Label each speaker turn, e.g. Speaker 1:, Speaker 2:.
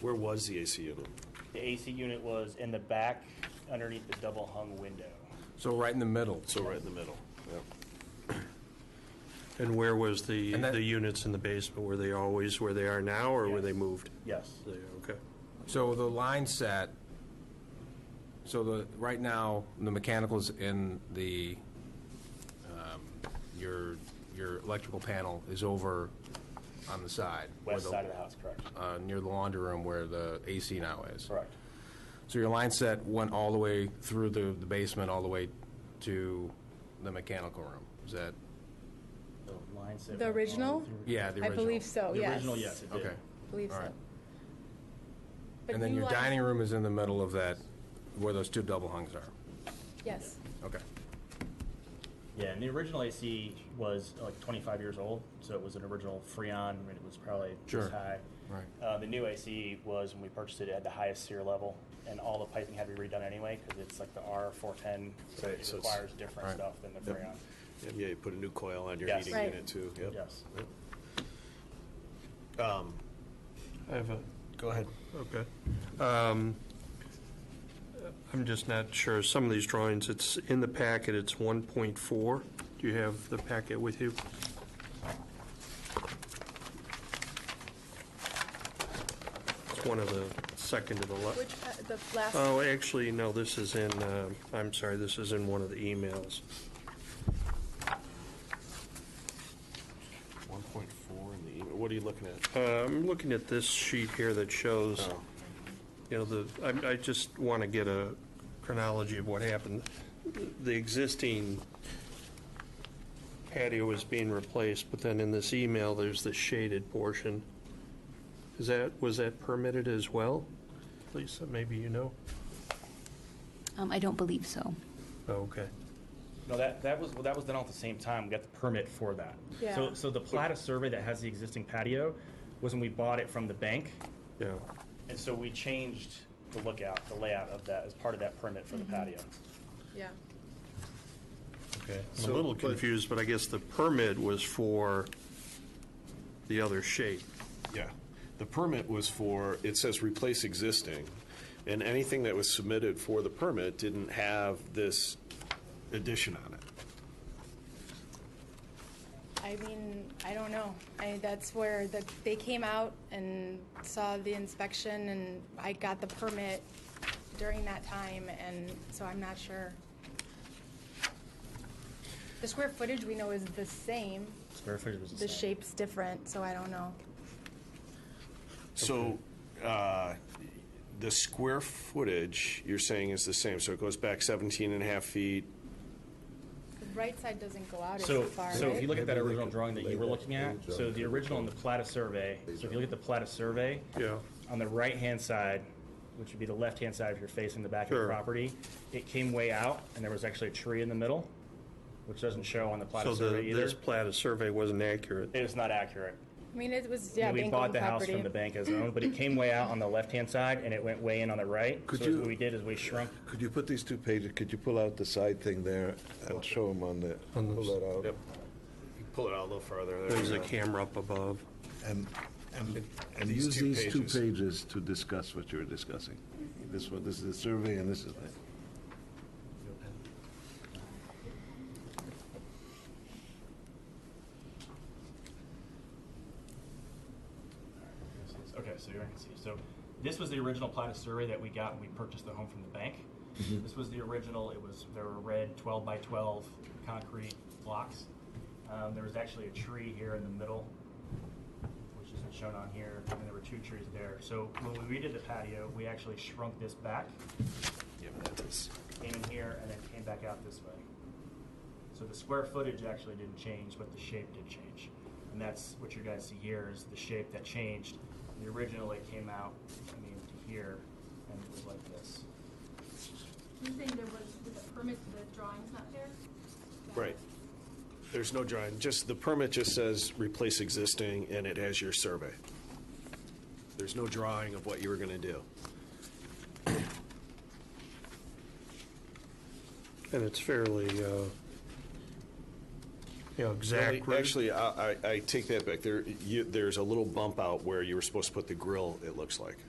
Speaker 1: Where was the AC unit?
Speaker 2: The AC unit was in the back underneath the double hung window.
Speaker 3: So right in the middle.
Speaker 1: So right in the middle. Yep.
Speaker 4: And where was the,
Speaker 3: And that-
Speaker 4: the units in the basement? Were they always where they are now, or were
Speaker 2: Yes.
Speaker 4: they moved?
Speaker 2: Yes.
Speaker 4: They- Okay.
Speaker 3: So the line set, so the, right now, the mechanical's in the, um, your, your electrical panel is over on the side. where
Speaker 2: West
Speaker 3: the-
Speaker 2: side of the house, correct.
Speaker 3: Uh, near the laundry room where the AC now is.
Speaker 2: Correct.
Speaker 3: So your line set went all the way through the the basement, all the way to the mechanical room? Is that,
Speaker 2: The line set.
Speaker 5: The original?
Speaker 3: yeah, the
Speaker 5: I
Speaker 3: original?
Speaker 5: believe so,
Speaker 2: The
Speaker 5: yes.
Speaker 2: original, yes, it did.
Speaker 3: Okay.
Speaker 5: Believe
Speaker 3: All
Speaker 5: so.
Speaker 3: right.
Speaker 5: But
Speaker 3: And then
Speaker 5: you
Speaker 3: your
Speaker 5: like-
Speaker 3: dining room is in the middle of that, where those two double hungs are?
Speaker 5: Yes.
Speaker 3: Okay.
Speaker 2: Yeah, and the original AC was uh, like 25 years old, so it was an original Freon, and it was probably
Speaker 3: Sure.
Speaker 2: this high.
Speaker 3: Right.
Speaker 2: Uh, the new AC was when we purchased it at the highest SEER level, and all the piping had to be redone anyway because it's like the R410, so
Speaker 1: Right,
Speaker 2: it
Speaker 1: so it's-
Speaker 2: requires different
Speaker 3: right.
Speaker 2: stuff than the Freon.
Speaker 1: And yeah, you put a new coil on your
Speaker 2: Yes.
Speaker 1: heating
Speaker 5: Right.
Speaker 1: unit too. Yep.
Speaker 2: Yes.
Speaker 1: Um,
Speaker 4: I have a
Speaker 1: Go ahead.
Speaker 4: Okay. Um, I'm just not sure, some of these drawings, it's in the packet, it's 1.4. Do you have the packet with you? It's one of the, second to the left.
Speaker 5: Which, uh, the last,
Speaker 4: Oh, actually, no, this is in, uh, I'm sorry, this is in one of the emails.
Speaker 1: 1.4 in the email. What are you looking at?
Speaker 4: Uh, I'm looking at this sheet here that shows,
Speaker 1: Oh.
Speaker 4: you know, the, I, I just want to get a chronology of what happened. The existing patio is being replaced, but then in this email, there's the shaded portion. Is that, was that permitted as well? Lisa, maybe you know?
Speaker 6: Um, I don't believe so.
Speaker 4: Oh, Okay.
Speaker 2: No, that, that was, well, that was done all at the same time. We got the permit for that.
Speaker 5: Yeah.
Speaker 2: So, so the Plata survey that has the existing patio was when we bought it from the bank.
Speaker 4: Yeah.
Speaker 2: And so we changed the lookout, the layout of that as part of that permit
Speaker 5: Mm-hmm.
Speaker 2: for the patio.
Speaker 5: yeah.
Speaker 4: Okay. I'm
Speaker 1: So,
Speaker 4: a little
Speaker 1: but-
Speaker 4: confused, but I guess the permit was for the other shape.
Speaker 1: Yeah. The permit was for, it says replace existing, and anything that was submitted for the permit didn't have this addition on it.
Speaker 5: I mean, I don't know. I, that's where the, they came out and saw the inspection and I got the permit during that time and so I'm not sure. The square footage we know is the same,
Speaker 2: Square footage was same.
Speaker 5: the shape's different, so I don't know.
Speaker 1: So, uh, the square footage, you're saying is the same, so it goes back 17 and a half feet?
Speaker 5: The right side doesn't go out as
Speaker 2: So,
Speaker 5: far,
Speaker 2: so if
Speaker 5: right?
Speaker 2: you look at that
Speaker 7: Maybe they
Speaker 2: original
Speaker 7: could
Speaker 2: drawing that
Speaker 7: lay
Speaker 2: you were
Speaker 7: that
Speaker 2: looking at,
Speaker 7: page
Speaker 2: so
Speaker 7: out.
Speaker 2: the original on the Plata survey, so if you look at the Plata survey,
Speaker 4: Yeah.
Speaker 2: on the right-hand side, which would be the left-hand side if you're facing the back of the
Speaker 4: Sure.
Speaker 2: property, it came way out, and there was actually a tree in the middle, which doesn't show on the
Speaker 4: So
Speaker 2: Plata
Speaker 4: the,
Speaker 2: survey either.
Speaker 4: this plat of survey wasn't accurate.
Speaker 2: It was not accurate.
Speaker 5: I mean, it was, yeah,
Speaker 2: we
Speaker 5: bank
Speaker 2: bought
Speaker 5: owned
Speaker 2: the house from
Speaker 5: property.
Speaker 2: the bank as owned, but it came way out on the left-hand side and it went way in on the right.
Speaker 7: Could
Speaker 2: so as
Speaker 7: you-
Speaker 2: what we did is we shrunk.
Speaker 7: Could you put these two pages, could you pull out the side thing there and show them on the, pull that out?
Speaker 1: You Pull it out a little farther. there
Speaker 4: There's
Speaker 1: you
Speaker 4: a
Speaker 1: go.
Speaker 4: camera up above.
Speaker 7: And, and, and
Speaker 1: These
Speaker 7: use
Speaker 1: two
Speaker 7: these two
Speaker 1: pages.
Speaker 7: pages to discuss what you're discussing. This one, this is the survey and this is the.
Speaker 2: Okay, so you can see. So this was the original plat of survey that we got when we purchased the home from the bank.
Speaker 7: Mm-hmm.
Speaker 2: This was the original. It was there were red 12 by 12 concrete blocks. Um, there was actually a tree here in the middle, which isn't shown on here, and there were two trees there. So when we redid the patio, we actually shrunk this back,
Speaker 1: Yeah, that is-
Speaker 2: came in here, and then came back out this way. So the square footage actually didn't change, but the shape did change. And that's what you guys see here is the shape that changed. The original it came out, I mean, to here, and it was like this.
Speaker 8: You're saying there was, with the permit, the drawing's not there?
Speaker 1: Right. There's no drawing, just, the permit just says replace existing, and it has your survey. There's no drawing of what you were gonna do.
Speaker 4: And it's fairly, uh, you know, exact.
Speaker 1: Really, Actually, I, I- I take that back. There, you, there's a little bump out where you were supposed to put the grill, it looks like.